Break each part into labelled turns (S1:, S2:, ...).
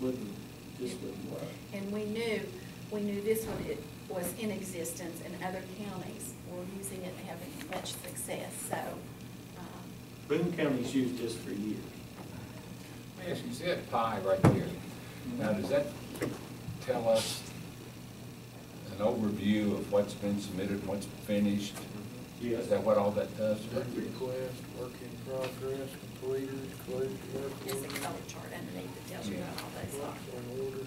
S1: wouldn't, just wouldn't work.
S2: And we knew, we knew this one it was in existence in other counties. We're using it and having much success, so, um,
S1: Boone County's used this for years.
S3: Let me ask you, see that pie right here? Now, does that tell us an overview of what's been submitted, what's finished? Is that what all that does?
S4: Work request, work in progress, completed, closed work
S2: there's a
S4: order.
S2: color chart underneath that tells you what all those
S4: Work
S2: are.
S4: on order,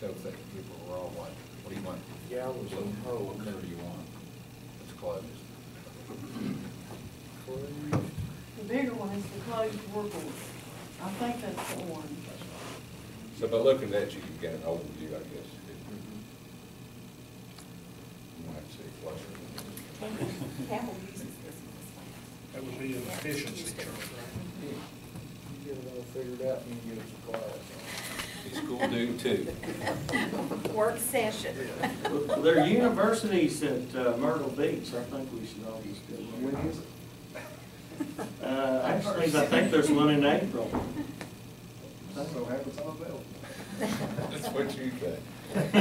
S3: So if that people were all what, what do you want?
S4: Gallons on hold.
S3: Whatever you want. It's closed.
S4: closed,
S5: The bigger one is the closed work order. I think that's the one.
S6: So by looking at that, you can get an overview, I guess. You might say flush.
S2: Campbell uses this one as well.
S7: That would be an efficiency chart,
S4: yeah, you get it all figured out, and you get us a class.
S6: It's cool dude too.
S2: Work session.
S1: Well, There are universities at uh, Myrtle Beach, I think we should all just go.
S4: When is it?
S1: Uh, actually, I think there's one in April.
S4: I don't know, happens on the belt.
S3: That's what you got.
S2: It's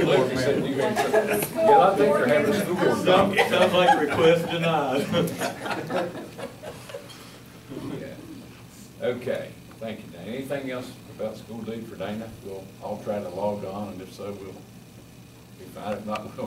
S3: Look, you said you had some-
S2: School
S3: Yeah, I think they're having a
S2: board
S3: school
S2: member.
S3: board
S1: Some,
S3: meeting.
S1: some like request denied.
S3: Yeah. Okay, thank you, Dana. Anything else about school deed for Dana? We'll all try to log on, and if so, we'll be fine. If not, we'll